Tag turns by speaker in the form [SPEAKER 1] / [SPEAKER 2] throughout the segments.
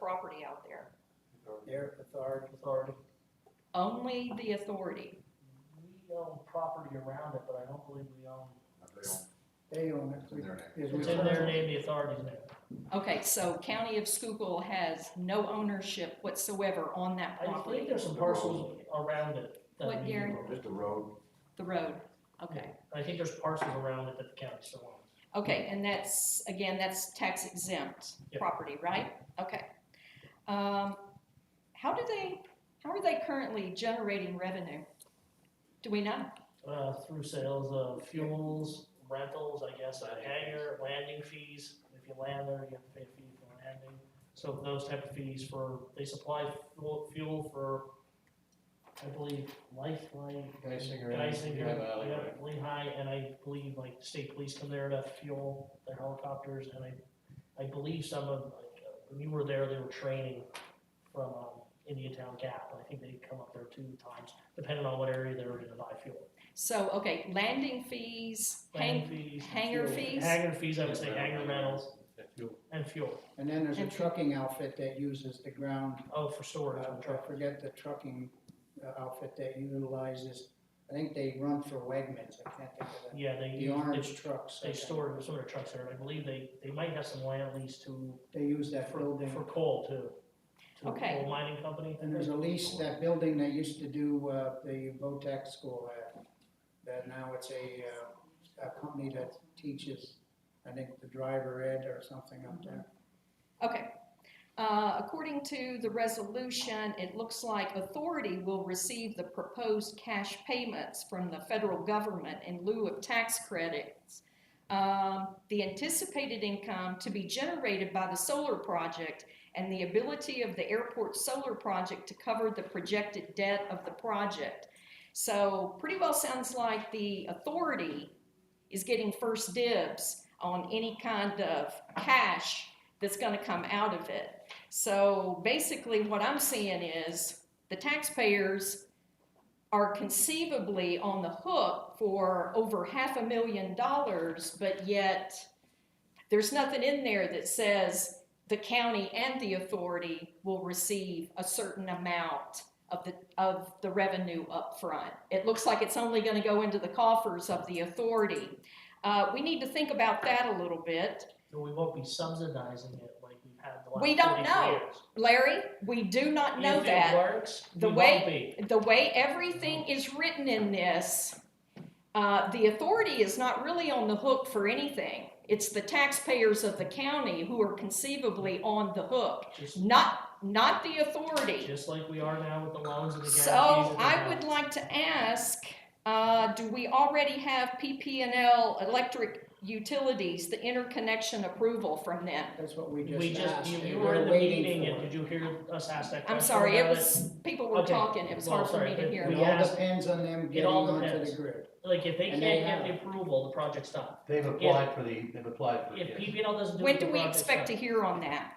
[SPEAKER 1] property out there.
[SPEAKER 2] Their authority. Authority.
[SPEAKER 1] Only the authority.
[SPEAKER 3] We own property around it, but I don't believe we own.
[SPEAKER 2] They own
[SPEAKER 4] It's in their
[SPEAKER 2] it.
[SPEAKER 4] name.
[SPEAKER 2] Is
[SPEAKER 3] It's
[SPEAKER 2] we-
[SPEAKER 3] in their name, the authority's name.
[SPEAKER 1] Okay, so County of Schuylkill has no ownership whatsoever on that
[SPEAKER 3] I think
[SPEAKER 1] property,
[SPEAKER 3] there's some parcels around it. that
[SPEAKER 1] What,
[SPEAKER 3] we-
[SPEAKER 1] Gary?
[SPEAKER 4] Just a road,
[SPEAKER 1] the road. Okay,
[SPEAKER 3] I think there's parcels around it that the county still owns.
[SPEAKER 1] okay, and that's, again, that's tax exempt
[SPEAKER 3] Yeah.
[SPEAKER 1] property, right? Okay. Um, how do they, how are they currently generating revenue? Do we know?
[SPEAKER 3] Uh, through sales of fuels, rentals, I guess, a hangar, landing fees. If you land there, you have to pay a fee for landing. So those type of fees for, they supply fuel, fuel for, I believe, lifeline.
[SPEAKER 5] Geisinger.
[SPEAKER 3] Geisinger,
[SPEAKER 5] Lehigh Valley,
[SPEAKER 3] yeah,
[SPEAKER 5] right.
[SPEAKER 3] Lehigh, and I believe like state police come there to fuel their helicopters, and I, I believe some of, like, uh, when you were there, they were training from, um, Indiantown Gap, and I think they come up there two times, depending on what area they were gonna buy fuel.
[SPEAKER 1] So, okay, landing fees, hang,
[SPEAKER 3] Landing fees. and
[SPEAKER 1] hangar
[SPEAKER 3] fuel.
[SPEAKER 1] fees?
[SPEAKER 3] Hangar fees, I would say
[SPEAKER 5] Yeah,
[SPEAKER 3] hangar
[SPEAKER 5] right.
[SPEAKER 3] rentals
[SPEAKER 5] Yeah, fuel.
[SPEAKER 3] and fuel,
[SPEAKER 2] And then there's a
[SPEAKER 1] And-
[SPEAKER 2] trucking outfit that uses the ground,
[SPEAKER 3] oh, for
[SPEAKER 2] uh,
[SPEAKER 3] storage and
[SPEAKER 2] I
[SPEAKER 3] truck.
[SPEAKER 2] forget the trucking uh, outfit that utilizes, I think they run for Wegmans, I can't think of
[SPEAKER 3] Yeah, they,
[SPEAKER 2] the, the
[SPEAKER 3] they,
[SPEAKER 2] orange trucks. I
[SPEAKER 3] they
[SPEAKER 2] think.
[SPEAKER 3] store some of their trucks there, and I believe they, they might have some land lease to,
[SPEAKER 2] They use that
[SPEAKER 3] for,
[SPEAKER 2] building.
[SPEAKER 3] for coal too. To a
[SPEAKER 1] Okay.
[SPEAKER 3] coal mining company.
[SPEAKER 2] And there's a lease, that building that used to do, uh, the VOTEC school at, that now it's a, uh, a company that teaches, I think, the driver ed or something up there.
[SPEAKER 1] okay. Uh, according to the resolution, it looks like authority will receive the proposed cash payments from the federal government in lieu of tax credits. Um, the anticipated income to be generated by the solar project and the ability of the airport solar project to cover the projected debt of the project. So pretty well sounds like the authority is getting first dibs on any kind of cash that's gonna come out of it. So basically, what I'm seeing is the taxpayers are conceivably on the hook for over half a million dollars, but yet there's nothing in there that says the county and the authority will receive a certain amount of the, of the revenue upfront. It looks like it's only gonna go into the coffers of the authority. Uh, we need to think about that a little bit.
[SPEAKER 3] So we won't be subsidizing it like we've had the last.
[SPEAKER 1] We don't
[SPEAKER 3] 40
[SPEAKER 1] know.
[SPEAKER 3] years.
[SPEAKER 1] Larry, we do not know
[SPEAKER 3] If it
[SPEAKER 1] that.
[SPEAKER 3] works,
[SPEAKER 1] The
[SPEAKER 3] we
[SPEAKER 1] way-
[SPEAKER 3] won't be.
[SPEAKER 1] The way everything is written in this, uh, the authority is not really on the hook for anything. It's the taxpayers of the county who are conceivably on the hook,
[SPEAKER 3] Just,
[SPEAKER 1] not, not the authority.
[SPEAKER 3] just like we are now with the loans and the guarantees.
[SPEAKER 1] So
[SPEAKER 3] and the
[SPEAKER 1] I would
[SPEAKER 3] loans.
[SPEAKER 1] like to ask, uh, do we already have PPNL electric utilities, the interconnection approval from them?
[SPEAKER 2] That's what we
[SPEAKER 3] We
[SPEAKER 2] just
[SPEAKER 3] just,
[SPEAKER 2] asked.
[SPEAKER 3] you,
[SPEAKER 2] and
[SPEAKER 3] you
[SPEAKER 2] we're
[SPEAKER 3] were in the
[SPEAKER 2] waiting
[SPEAKER 3] meeting
[SPEAKER 2] for
[SPEAKER 3] and
[SPEAKER 2] it.
[SPEAKER 3] did you hear us ask that question?
[SPEAKER 1] I'm sorry, it
[SPEAKER 3] about
[SPEAKER 1] was, people were
[SPEAKER 3] Okay.
[SPEAKER 1] talking, it was
[SPEAKER 3] Well,
[SPEAKER 1] hard for
[SPEAKER 3] sorry,
[SPEAKER 1] me to
[SPEAKER 3] but
[SPEAKER 1] hear.
[SPEAKER 3] we
[SPEAKER 2] It all
[SPEAKER 3] asked-
[SPEAKER 2] depends on them getting
[SPEAKER 3] all
[SPEAKER 2] onto the
[SPEAKER 3] depends.
[SPEAKER 2] grid.
[SPEAKER 3] Like, if they can't
[SPEAKER 2] And they
[SPEAKER 3] get the
[SPEAKER 2] have.
[SPEAKER 3] approval, the project's done.
[SPEAKER 5] They've applied for the, they've applied for it,
[SPEAKER 3] If
[SPEAKER 5] yes.
[SPEAKER 3] PPL doesn't do
[SPEAKER 1] When
[SPEAKER 3] it,
[SPEAKER 1] do
[SPEAKER 3] the
[SPEAKER 1] we
[SPEAKER 3] project's
[SPEAKER 1] expect to
[SPEAKER 3] done.
[SPEAKER 1] hear on that?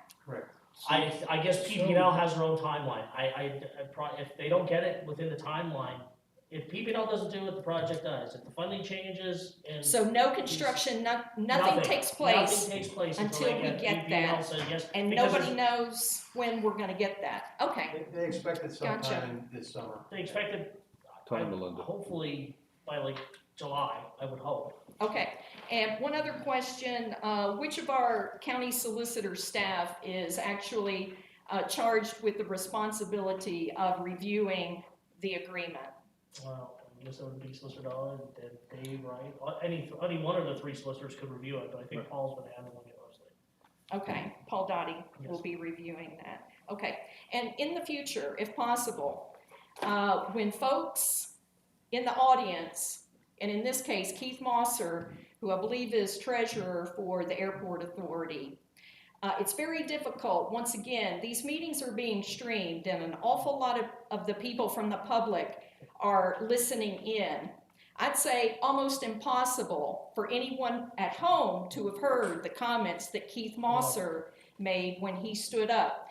[SPEAKER 3] I, I guess
[SPEAKER 2] So-
[SPEAKER 3] PPL has their own timeline. I, I, I pro- if they don't get it within the timeline, if PPL doesn't do it, the project does. If the funding changes and.
[SPEAKER 1] So no construction, no, nothing takes place,
[SPEAKER 3] Nothing takes place
[SPEAKER 1] until
[SPEAKER 3] until
[SPEAKER 1] we
[SPEAKER 3] they get,
[SPEAKER 1] get
[SPEAKER 3] PPL
[SPEAKER 1] that.
[SPEAKER 3] says yes.
[SPEAKER 1] and
[SPEAKER 3] because
[SPEAKER 1] nobody
[SPEAKER 3] it's-
[SPEAKER 1] knows when we're gonna get that. Okay,
[SPEAKER 5] They- They expect it
[SPEAKER 1] Gotcha.
[SPEAKER 5] sometime this summer.
[SPEAKER 3] They expected,
[SPEAKER 6] Time to Linda.
[SPEAKER 3] hopefully, by like July, I would hope.
[SPEAKER 1] okay. And one other question, uh, which of our county solicitor staff is actually, uh, charged with the responsibility of reviewing the agreement?
[SPEAKER 3] Well, I guess it would be Solicitor Dollar and then Dave, right? Uh, Any, any one of the three solicitors could review it, but I think Paul's been handling it mostly.
[SPEAKER 1] Okay, Paul Dotty will
[SPEAKER 3] Yes.
[SPEAKER 1] be reviewing that. Okay, and in the future, if possible, uh, when folks in the audience, and in this case Keith Mosser, who I believe is treasurer for the airport authority, uh, it's very difficult. Once again, these meetings are being streamed, and an awful lot of, of the people from the public are listening in. I'd say almost impossible for anyone at home to have heard the comments that Keith Mosser made when he stood up.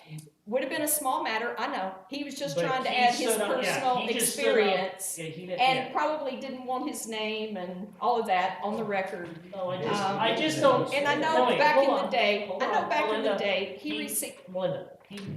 [SPEAKER 1] Would have been a small matter, I know. He was just
[SPEAKER 3] But
[SPEAKER 1] trying to
[SPEAKER 3] he
[SPEAKER 1] add his
[SPEAKER 3] stood up- yeah,
[SPEAKER 1] personal
[SPEAKER 3] he just stood up
[SPEAKER 1] experience
[SPEAKER 3] Yeah, he didn't,
[SPEAKER 1] and
[SPEAKER 3] yeah.
[SPEAKER 1] probably didn't want his name and all of that on the record.
[SPEAKER 3] No, I just,
[SPEAKER 1] um,
[SPEAKER 3] I just don't.
[SPEAKER 1] And I
[SPEAKER 3] no,
[SPEAKER 1] know
[SPEAKER 3] wait,
[SPEAKER 1] back
[SPEAKER 3] hold
[SPEAKER 1] in the
[SPEAKER 3] on.
[SPEAKER 1] day,
[SPEAKER 3] hold
[SPEAKER 1] I know
[SPEAKER 3] on,
[SPEAKER 1] back in the
[SPEAKER 3] Melinda,
[SPEAKER 1] day, he
[SPEAKER 3] he-
[SPEAKER 1] received,
[SPEAKER 3] Melinda, he,